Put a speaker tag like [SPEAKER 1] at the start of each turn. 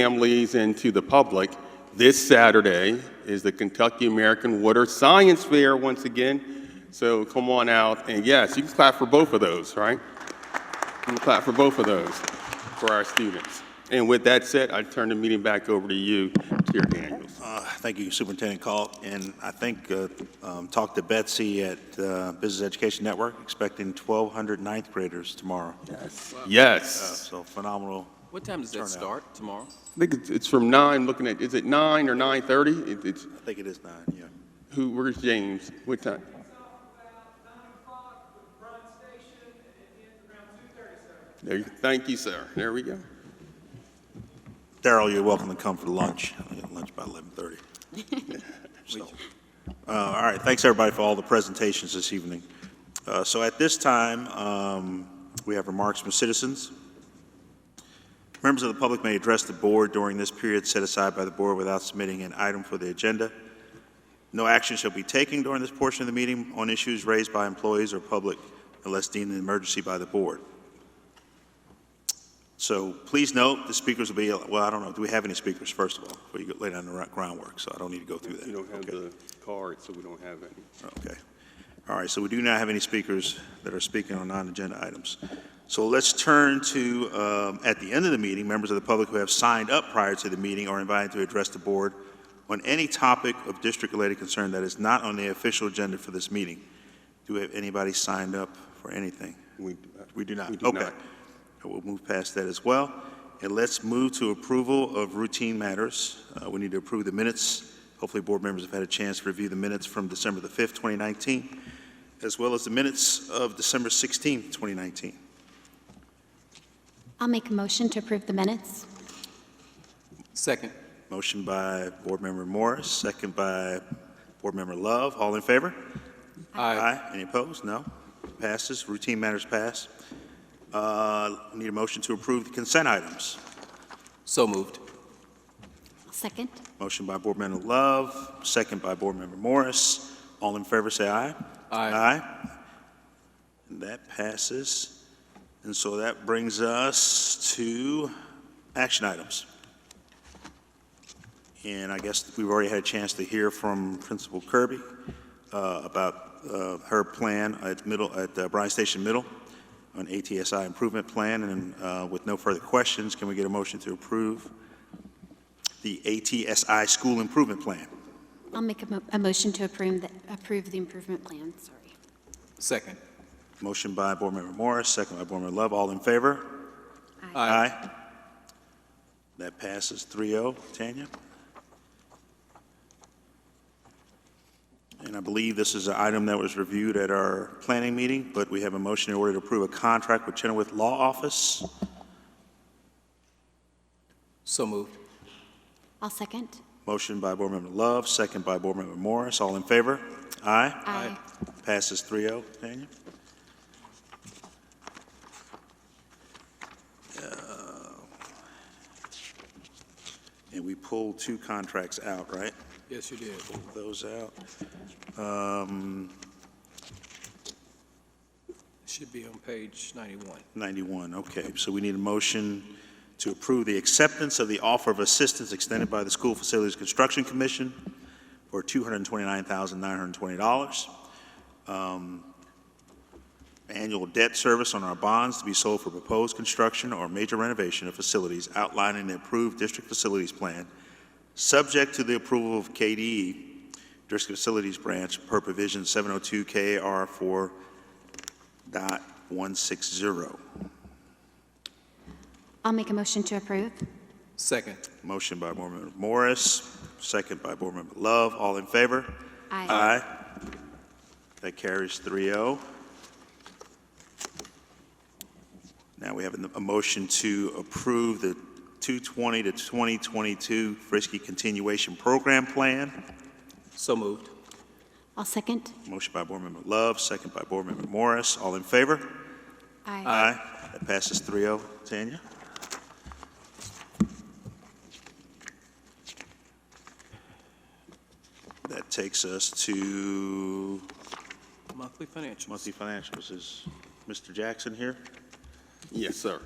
[SPEAKER 1] families and to the public. This Saturday is the Kentucky American Water Science Fair once again. So come on out, and yes, you can clap for both of those, right? You can clap for both of those for our students. And with that said, I turn the meeting back over to you, Chair Daniels.
[SPEAKER 2] Uh, Thank you, Superintendent Call. And I think, uh, um, talked to Betsy at uh, Business Education Network, expecting 1,200 ninth graders tomorrow. Uh,
[SPEAKER 1] Yes.
[SPEAKER 2] So phenomenal.
[SPEAKER 3] What time does that
[SPEAKER 2] Turnout.
[SPEAKER 3] start tomorrow?
[SPEAKER 1] I think it's- it's from nine, looking at, is it nine or 9:30? It- It's,
[SPEAKER 2] I think it is nine, yeah.
[SPEAKER 1] who, where's James? What time? There, you- thank you, sir. There we go.
[SPEAKER 2] Daryl, you're welcome to come for lunch. I get lunch by 11:30. So, uh, All right, thanks, everybody, for all the presentations this evening. Uh, So at this time, um, we have remarks from citizens. Members of the public may address the board during this period set aside by the board without submitting an item for the agenda. No action shall be taken during this portion of the meeting on issues raised by employees or public unless deemed an emergency by the board. So please note, the speakers will be, well, I don't know, do we have any speakers, first of all? Before you go lay down the groundwork, so I don't need to go through that.
[SPEAKER 1] You don't have
[SPEAKER 2] Okay.
[SPEAKER 1] the card, so we don't have any.
[SPEAKER 2] Okay. All right, so we do not have any speakers that are speaking on non-agenda items. So let's turn to, um, at the end of the meeting, members of the public who have signed up prior to the meeting are invited to address the board on any topic of district-related concern that is not on the official agenda for this meeting. Do we have anybody signed up for anything?
[SPEAKER 1] We- uh,
[SPEAKER 2] We do not.
[SPEAKER 1] We do
[SPEAKER 2] Okay.
[SPEAKER 1] not.
[SPEAKER 2] We'll move past that as well. And let's move to approval of routine matters. Uh, We need to approve the minutes. Hopefully, board members have had a chance to review the minutes from December the 5th, 2019, as well as the minutes of December 16th, 2019.
[SPEAKER 4] I'll make a motion to approve the minutes.
[SPEAKER 3] Second.
[SPEAKER 2] Motion by Board Member Morris, second by Board Member Love. All in favor? Aye. Any opposed? No. Passes. Routine matters pass. Uh, Need a motion to approve the consent items.
[SPEAKER 3] So moved.
[SPEAKER 4] Second.
[SPEAKER 2] Motion by Board Member Love, second by Board Member Morris. All in favor, say aye.
[SPEAKER 3] Aye.
[SPEAKER 2] Aye. And that passes. And so that brings us to action items. And I guess we've already had a chance to hear from Principal Kirby uh, about uh, her plan at middle, at uh, Bryan Station Middle on ATSI improvement plan. And uh, with no further questions, can we get a motion to approve the ATSI School Improvement Plan.
[SPEAKER 4] I'll make a, mo- a motion to approve the, approve the improvement plan, sorry.
[SPEAKER 3] Second.
[SPEAKER 2] Motion by Board Member Morris, second by Board Member Love. All in favor? Aye. That passes 3-0. Tanya? And I believe this is an item that was reviewed at our planning meeting, but we have a motion in order to approve a contract with Chenoweth Law Office.
[SPEAKER 3] So moved.
[SPEAKER 4] I'll second.
[SPEAKER 2] Motion by Board Member Love, second by Board Member Morris. All in favor? Aye.
[SPEAKER 4] Aye.
[SPEAKER 2] Passes oh. 3-0. Tanya? Uh, And we pulled two contracts out, right?
[SPEAKER 3] Yes, you did.
[SPEAKER 2] Pulled Those out. Um,
[SPEAKER 3] Should be on page 91.
[SPEAKER 2] 91, okay. So we need a motion to approve the acceptance of the offer of assistance extended by the School Facilities Construction Commission for $229,920. Um, annual debt service on our bonds to be sold for proposed construction or major renovation of facilities outlined in the approved district facilities plan, subject to the approval of KDE, District Facilities Branch, per provision 702 KAR 4.160.
[SPEAKER 4] I'll make a motion to approve.
[SPEAKER 3] Second.
[SPEAKER 2] Motion by Board Member Morris, second by Board Member Love. All in favor?
[SPEAKER 4] Aye.
[SPEAKER 2] That carries oh. 3-0. Now we have a- a motion to approve the 220 to 2022 Frisky Continuation Program Plan.
[SPEAKER 3] So moved.
[SPEAKER 4] I'll second.
[SPEAKER 2] Motion by Board Member Love, second by Board Member Morris. All in favor?
[SPEAKER 4] Aye.
[SPEAKER 2] Aye. That passes 3-0. Tanya? That takes us to
[SPEAKER 3] Monthly financials.
[SPEAKER 2] monthly financials. Is Mr. Jackson here?
[SPEAKER 1] Yes, sir.